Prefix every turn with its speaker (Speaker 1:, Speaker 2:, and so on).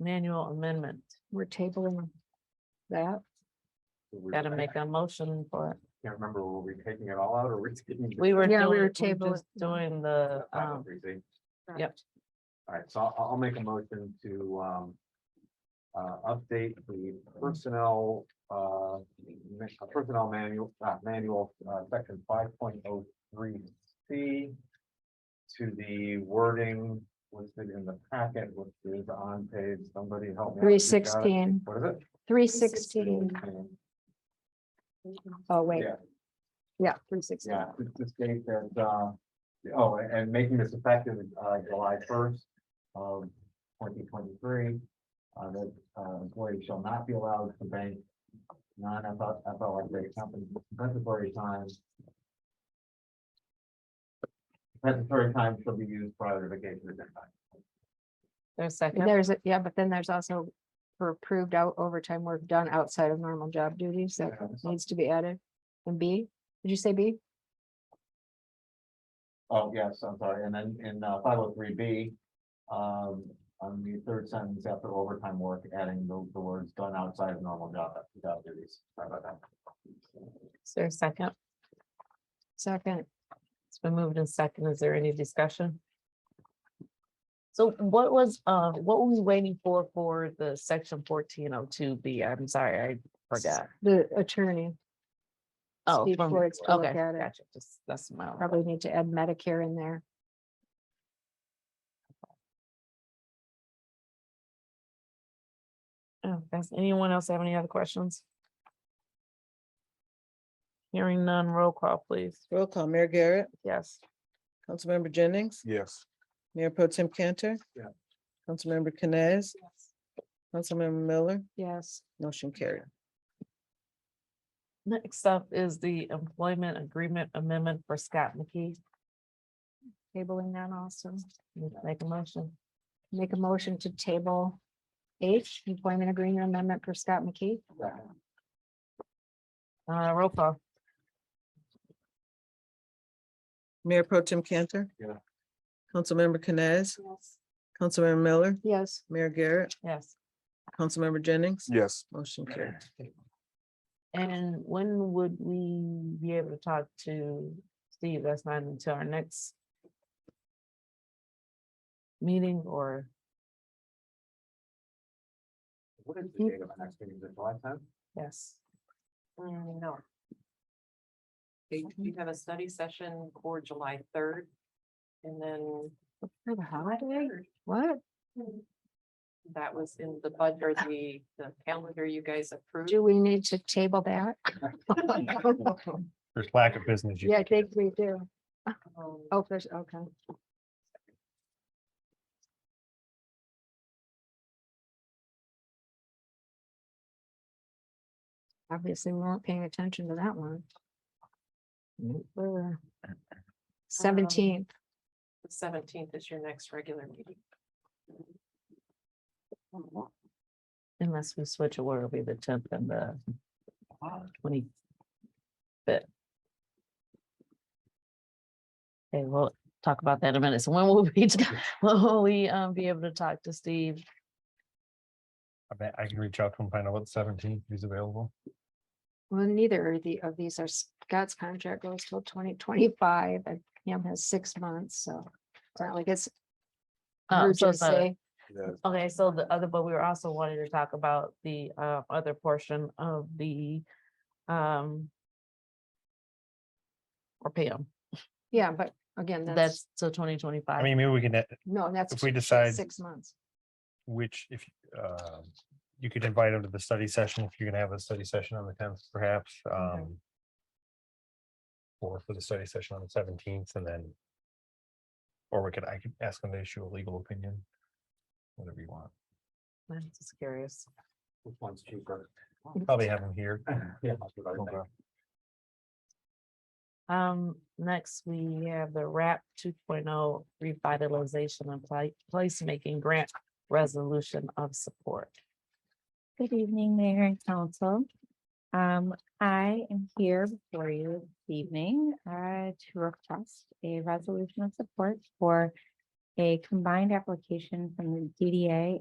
Speaker 1: manual amendment.
Speaker 2: We're tabling that.
Speaker 3: We
Speaker 1: Gotta
Speaker 3: were- I
Speaker 1: make a motion for it.
Speaker 3: Can't remember, were we taking it all out or were we taking? just
Speaker 1: We were.
Speaker 2: Yeah, we
Speaker 1: doing-
Speaker 2: were
Speaker 1: just
Speaker 2: tabling-
Speaker 1: Doing
Speaker 3: the
Speaker 1: the,
Speaker 3: final
Speaker 1: um,
Speaker 3: reading?
Speaker 1: Yep.
Speaker 3: All right, so I'll, I'll make a motion to, um, uh, update the personnel, uh, ma- personnel manual, uh, manual, uh, section five point oh three C to the wording listed in the packet, which is on page, somebody help me. out,
Speaker 2: Three
Speaker 3: you got it?
Speaker 2: sixteen.
Speaker 3: What is it?
Speaker 2: Three sixteen. Oh wait,
Speaker 3: Yeah.
Speaker 2: yeah, three sixteen.
Speaker 3: Yeah, it's this date that, uh, oh, and- and making this effective, uh, July first of twenty twenty-three. Uh, that, uh, employees shall not be allowed to bank non-FLSA compensatory time. Compensatory time shall be used prior to vacation at that time.
Speaker 1: there's second.
Speaker 2: There's, a yeah, but then there's also for approved out overtime work done outside of normal job duties that
Speaker 3: Yeah, so-
Speaker 2: needs to be added. And B, did you say B?
Speaker 3: Oh, yes, I'm sorry, and then in five oh three B, um, on the third sentence after overtime work, adding the, the words done outside of normal job, job duties. Sorry about that.
Speaker 1: Is there a second?
Speaker 2: Second,
Speaker 1: It's been moved in second. Is there any discussion? So what was, uh, what were we waiting for, for the section fourteen oh two B? I'm sorry, I forgot.
Speaker 2: the attorney
Speaker 1: Oh,
Speaker 2: Steve
Speaker 1: from-
Speaker 2: Florence to look
Speaker 1: okay,
Speaker 2: at it.
Speaker 1: gotcha. Just, that's my. own.
Speaker 2: probably need to add Medicare in there.
Speaker 1: Oh, Does anyone else have any other questions? Hearing none, roll call, please.
Speaker 4: Roll call, Mayor Garrett,
Speaker 1: Yes.
Speaker 4: Councilmember Jennings,
Speaker 3: Yes.
Speaker 4: Mayor Pro Tem Cantor.
Speaker 3: Yeah.
Speaker 4: Councilmember Canes, Councilmember Miller,
Speaker 2: Yes,
Speaker 4: motion carried.
Speaker 1: Next up is the employment agreement amendment for Scott McKee.
Speaker 2: tabling that also.
Speaker 1: Make a motion.
Speaker 2: Make a motion to table H, employment agreement amendment for Scott McKee.
Speaker 1: Uh, roll call.
Speaker 4: Mayor Pro Tem Cantor.
Speaker 3: Yeah.
Speaker 4: Councilmember Canes, Councilmember Miller,
Speaker 2: Yes,
Speaker 4: Mayor Garrett,
Speaker 1: Yes.
Speaker 4: Councilmember Jennings,
Speaker 3: Yes.
Speaker 4: motion carried.
Speaker 1: And when would we be able to talk to Steve? That's not until our next meeting or,
Speaker 3: What is the date of our next meeting, is it July tenth?
Speaker 1: yes.
Speaker 5: Mm, No. They, you have a study session for July third. And then
Speaker 2: for the holiday,
Speaker 5: third,
Speaker 2: what?
Speaker 5: that was in the budget or the, the calendar you guys approved.
Speaker 2: Do we need to table that?
Speaker 6: There's lack of business. you
Speaker 2: Yeah, I
Speaker 6: can
Speaker 2: think we do.
Speaker 5: Um,
Speaker 2: Oh, there's, okay. Obviously, we weren't paying attention to that one.
Speaker 1: Nope.
Speaker 2: Seventeenth,
Speaker 5: The seventeenth is your next regular meeting.
Speaker 1: Unless we switch it, where it'll be the tenth and the twenty. But. Okay, we'll talk about that in a minute. So when will we, when will we um be able to talk to Steve?
Speaker 6: I bet I can reach out to him, find out what seventeenth is available.
Speaker 2: well, neither of the, of these are, Scott's contract goes till twenty twenty-five, and Ham has six months, so. it's not like it's
Speaker 1: Uh, so the-
Speaker 2: urgency.
Speaker 1: Okay, so the other, but we were also wanting to talk about the uh other portion of the um. Or PM,
Speaker 2: Yeah, but again, that's,
Speaker 1: that's till twenty
Speaker 6: I
Speaker 1: twenty-five.
Speaker 6: mean, maybe we can, uh,
Speaker 2: no, that's.
Speaker 6: if we
Speaker 2: just
Speaker 6: decide
Speaker 2: Six months.
Speaker 6: which, if, uh, you could invite him to the study session, if you're gonna have a study session on the tenth perhaps, um. Or for the study session on the seventeenth and then. Or we could, I could ask him to issue a legal opinion. Whatever you want.
Speaker 1: I'm just curious.
Speaker 3: Which one's cheaper?
Speaker 6: Probably have him here.
Speaker 3: Yeah, that's what I think.
Speaker 6: Okay.
Speaker 1: Um, next, we have the RAP two oh revitalization and pla- placemaking grant resolution of support.
Speaker 7: Good evening, Mayor and Council. Um, I am here before you this evening, uh, to request a resolution of support for a combined application from the DDA